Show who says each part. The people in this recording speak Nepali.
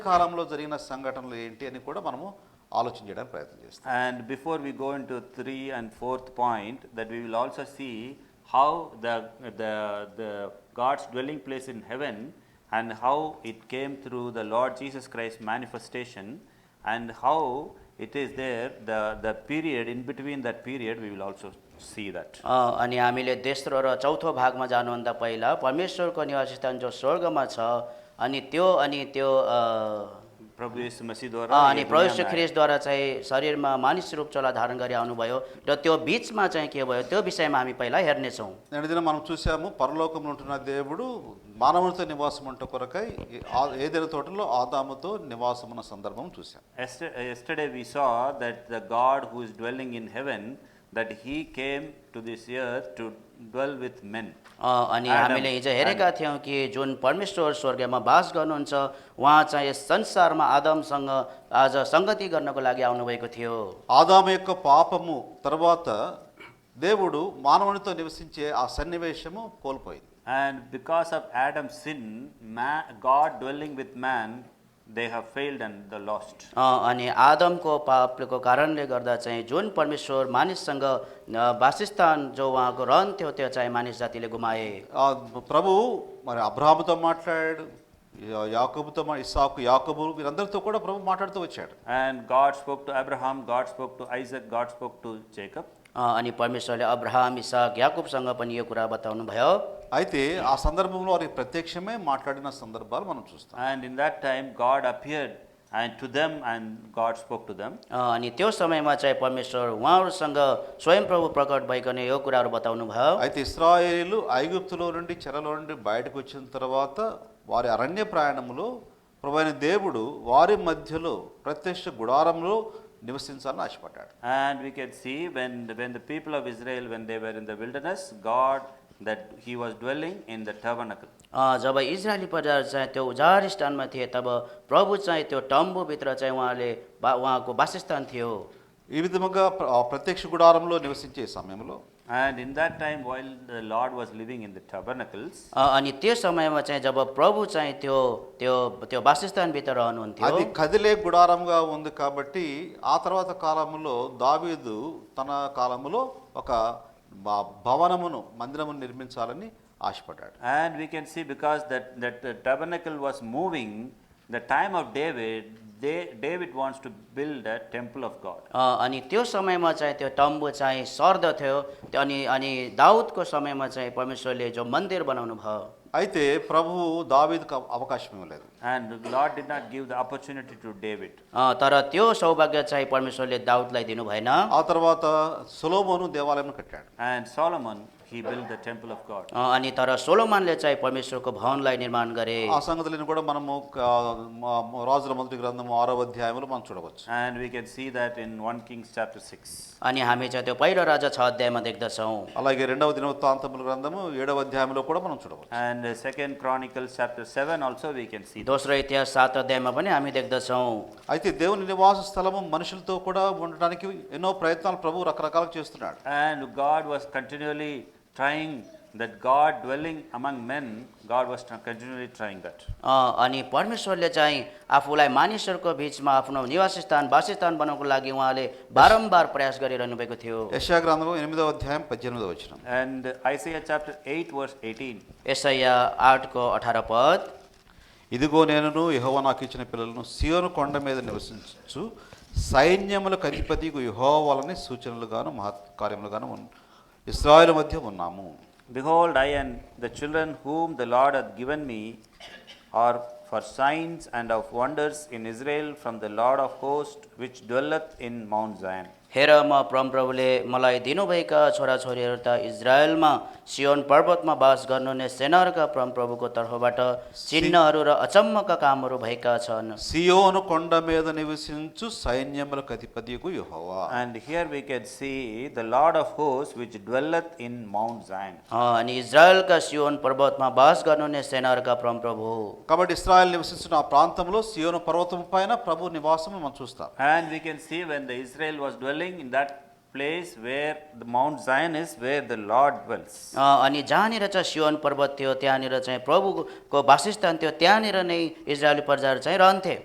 Speaker 1: కాలంలో జరిగిన సంఘటనలు ఏంటి అని కూడా మనము ఆలోచన చేయడానికి ప్రయత్నం చేస్తాం
Speaker 2: And before we go into three and fourth point, that we will also see how the, the, the God's dwelling place in heaven and how it came through the Lord Jesus Christ manifestation and how it is there, the, the period, in between that period, we will also see that.
Speaker 3: अ, अनि हामीले तेस्रो र चौथो भागमा जानुभन्दा पहिला परमेश्वरको निवास स्थान जो स्वर्गमा छ अनि त्यो अनि त्यो अ,
Speaker 2: Prabhu Yesu Masi
Speaker 3: अ, अनि प्रविश्व ख्रिसद्वारा चाहिँ शरीरमा मानिस रूप चोला धारण गरी आउनुभयो र त्यो बिचमा चाहिँ के भयो त्यो विषयमा हामी पहिला हेर्नेछौँ
Speaker 1: నేటి దినం మనం చూసాము పరలోకంలో ఉంటున్న దేవుడు మానవునితో నివాసం ఉంట కొరకై ఈ ఆ- ఏదైనా తోటలో ఆదాముతో నివాసం ఉన్న సందర్భం చూసాం
Speaker 2: Yester- uh, Yesterday we saw that the God who is dwelling in heaven, that he came to this earth to dwell with men.
Speaker 3: अ, अनि हामीले हिजो हेरेका थियौँ कि जुन परमेश्वर स्वर्गमा बास गर्नुहुन्छ उहाँ चाहिँ यस संसारमा आदमसँग आज सङ्गति गर्नको लागि आउनुभएको थियो
Speaker 1: ఆదాము యొక్క పాపము తర్వాత దేవుడు మానవునితో నివసించే ఆ సన్నివేశము కోల్పోయింది
Speaker 2: And because of Adam's sin, ma God dwelling with man, they have failed and they lost.
Speaker 3: अ, अनि आदमको पापको कारणले गर्दा चाहिँ जुन परमेश्वर मानिससँग अ, वासस्थान जो उहाँको रहन थियो त्यो चाहिँ मानिस जातिले गुमाए
Speaker 1: ఆ ప్రభు మరి అబ్రాహాముతో మాట్లాడాడు యా- యాకోబుతో మా- ఇస్సాకు యాకోబు వీరందరితో కూడా ప్రభు మాట్లాడుతూ వచ్చాడు
Speaker 2: And God spoke to Abraham, God spoke to Isaac, God spoke to Jacob.
Speaker 3: अ, अनि परमेश्वरले अब्राहम इसाक याकुबसँग पनि यो कुरा बताउनु भयो
Speaker 1: అయితే ఆ సందర్భంలో వారికి ప్రత్యక్షమే మాట్లాడిన సందర్భాలు మనం చూస్తాం
Speaker 2: And in that time, God appeared and to them and God spoke to them.
Speaker 3: अ, अनि त्यो समयमा चाहिँ परमेश्वर उहाँहरूसँग स्वयं प्रभु प्रकट भइकन यो कुराहरू बताउनु भयो
Speaker 1: అయితే ఇస్రాయేలు ఐగుప్తులో నుండి చెరలో నుండి బయటకు వచ్చిన తర్వాత వారి అరణ్య ప్రయాణంలో ప్రభువైన దేవుడు వారి మధ్యలో ప్రత్యక్ష గుడారంలో నివసించాలని ఆశపడ్డాడు
Speaker 2: And we can see when, the- when the people of Israel, when they were in the wilderness, God, that he was dwelling in the tabernacle.
Speaker 3: अ, जब इजरायली प्रजा चाहिँ त्यो उजार स्थानमा थिए तब प्रभु चाहिँ त्यो टम्बुभित्र चाहिँ उहाँले बा उहाँको वासस्थान थियो
Speaker 1: ఈ విధముగా ప్ర- ఆ ప్రత్యక్ష గుడారంలో నివసించే సమయంలో
Speaker 2: And in that time, while the Lord was living in the tabernacles,
Speaker 3: अ, अनि त्यो समयमा चाहिँ जब प्रभु चाहिँ त्यो त्यो त्यो वासस्थानभित्र रहनुहुन्थ्यो
Speaker 1: అది కదిలే గుడారంగా ఉంది కాబట్టి ఆ తర్వాత కాలంలో దావీదు తన కాలంలో ఒక భ- భవనమును మందిరమును నిర్మించాలని ఆశపడ్డాడు
Speaker 2: And we can see because that, that the tabernacle was moving, the time of David, they, David wants to build a temple of God.
Speaker 3: अ, अनि त्यो समयमा चाहिँ त्यो टम्बु चाहिँ सर्दथ्यो त्यो अनि अनि दाउदको समयमा चाहिँ परमेश्वरले जो मन्दिर बनाउनु भयो
Speaker 1: అయితే ప్రభువు దావీదుకు అవ- అవకాశం ఇవ్వలేదు
Speaker 2: And the Lord did not give the opportunity to David.
Speaker 3: अ, तर त्यो सौभाग्य चाहिँ परमेश्वरले दाउदलाई दिनु भएन
Speaker 1: ఆ తర్వాత సులోమోను దేవాలయం కట్టాడు
Speaker 2: And Solomon, he built the temple of God.
Speaker 3: अ, अनि तर सोलोमानले चाहिँ परमेश्वरको भवनलाई निर्माण गरे
Speaker 1: ఆ సంగతులను కూడా మనము ఆ, మా- మా రాజుల మొదటి గ్రంథము ఆరో అధ్యాయంలో మనం చూడవచ్చు
Speaker 2: And we can see that in 1 Kings chapter 6.
Speaker 3: अनि हामी चाहिँ त्यो पहिलो राजा छ अध्यायमा देख्दछौँ
Speaker 1: అలాగే రెండవ దినవృత్తాంతముల గ్రంథము ఏడవ అధ్యాయంలో కూడా మనం చూడవచ్చు
Speaker 2: And uh, 2 Chronicles chapter 7 also we can see. that.
Speaker 3: दोस्रो इतिहास सात अध्यायमा पनि हामी देख्दछौँ
Speaker 1: అయితే దేవుని నివాస స్థలము మనుషులతో కూడా ఉండడానికి ఎన్నో ప్రయత్నాలు ప్రభు రకరకాలు చేస్తున్నాడు
Speaker 2: And God was continually trying that God dwelling among men, God was continually trying that.
Speaker 3: अ, अनि परमेश्वरले चाहिँ आफूलाई मानिसहरूको बिचमा आफ्नो निवास स्थान वासस्थान बनाउनको लागि उहाँले बारम्बार प्रयास गरिरहनु भएको थियो
Speaker 1: యశా గ్రంథము ఎనిమిదవ అధ్యాయం పద్దెనిమిదవ వచనం
Speaker 2: And Isaiah chapter 8, verse 18.
Speaker 3: यसैया आठको अठार पद
Speaker 1: ఇదిగో నేనును యెహోవా నాకు ఇచ్చిన పిల్లలను సియోను కొండ మీద నివసించు సైన్యములకు అధిపతికు యెహోవాలని సూచనలుగాను మహత్ కార్యములుగాను ఉన్- ఇస్రాయేలు మధ్య ఉన్నాము
Speaker 2: Behold, I and the children whom the Lord hath given me are for signs and of wonders in Israel from the Lord of hosts, which dwelleth in Mount Zion.
Speaker 3: हेर म परमप्रभुले मलाई दिनुभएका छोराछोरीहरू त इजरायलमा सियोन पर्वतमा बास गर्नुहुने सेनाहरूका परमप्रभुको तर्फबाट चिन्हहरू र अचम्मका कामहरू भएका छन्
Speaker 1: సియోను కొండ మీద నివసించు సైన్యములకు అధిపతికు యెహోవా
Speaker 2: And here we can see the Lord of hosts, which dwelleth in Mount Zion.
Speaker 3: अ, अनि इजरायलका सियोन पर्वतमा बास गर्नुहुने सेनाहरूका परमप्रभु
Speaker 1: కాబట్టి ఇస్రాయేల్ నివసిస్తున్న ఆ ప్రాంతంలో సియోను పర్వతం పైన ప్రభు నివాసం మనం చూస్తాం
Speaker 2: And we can see when the Israel was dwelling in that place where the Mount Zion is, where the Lord dwells.
Speaker 3: अ, अनि जहाँनिर चाहिँ सियोन पर्वत थियो त्यहाँनिर चाहिँ प्रभुको वासस्थान थियो त्यहाँनिर नै इजरायली प्रजाहरू चाहिँ रहन्थे